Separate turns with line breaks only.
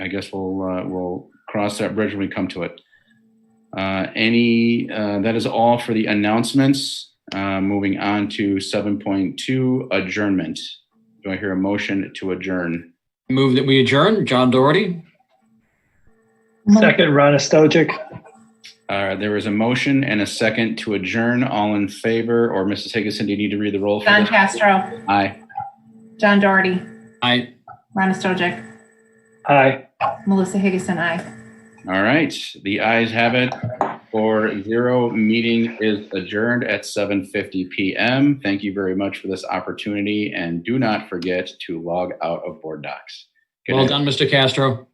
guess we'll uh, we'll cross that bridge when we come to it. Uh, any uh, that is all for the announcements. Uh, moving on to 7.2 adjournment. Do I hear a motion to adjourn?
Move that we adjourn. John Doherty.
Second, Ron Stojic.
Uh, there is a motion and a second to adjourn. All in favor, or Mrs. Higginson, do you need to read the roll? for
John
this?
Castro,
Aye.
John Doherty,
I
Ron Stojic,
Aye.
Melissa Higginson, I.
All right, the ayes have it. Four zero, meeting is adjourned at 7:50 PM. Thank you very much for this opportunity and do not forget to log out of board docs. Good
well
night.
done, Mr. Castro.